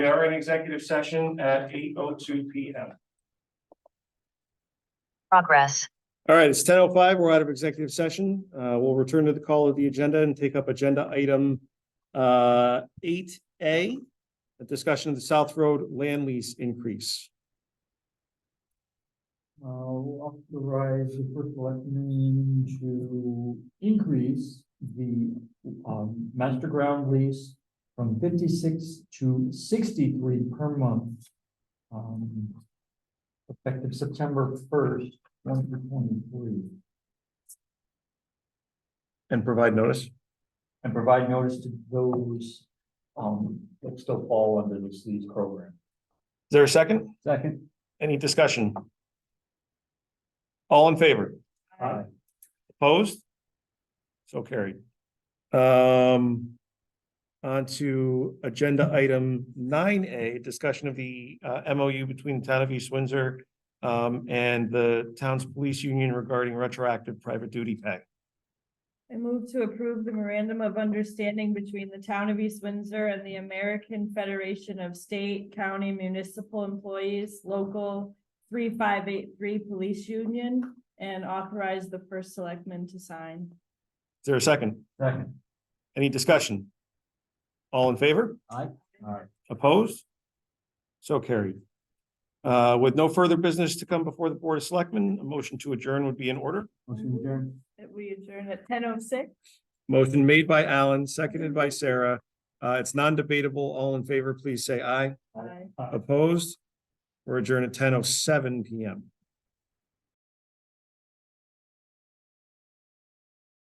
We are in executive session at eight oh two P M. Progress. All right, it's ten oh five. We're out of executive session. Uh, we'll return to the call of the agenda and take up agenda item uh, eight A, a discussion of the South Road land lease increase. Uh, will authorize the first selectman to increase the, um, master ground lease from fifty-six to sixty-three per month. um, Effective September first, twenty twenty-three, And provide notice. and provide notice to those, um, that still fall under this lease program. Is there a second? Second. Any discussion? All in favor? Aye. Opposed? So carried. Um. On to agenda item nine A, discussion of the uh MOU between the town of East Windsor. Um, and the town's police union regarding retroactive private duty pay. I move to approve the memorandum of understanding between the town of East Windsor and the American Federation of State, County, Municipal Employees, Local three five eight three Police Union, and authorize the first selectman to sign. Is there a second? Second. Any discussion? All in favor? All right. Opposed? So carried. Uh, with no further business to come before the Board of Selectmen, a motion to adjourn would be in order. Motion adjourned. That we adjourn at ten oh six. Motion made by Alan, seconded by Sarah. Uh, it's non-debatable. All in favor, please say aye. Aye. Opposed? We're adjourned at ten oh seven PM.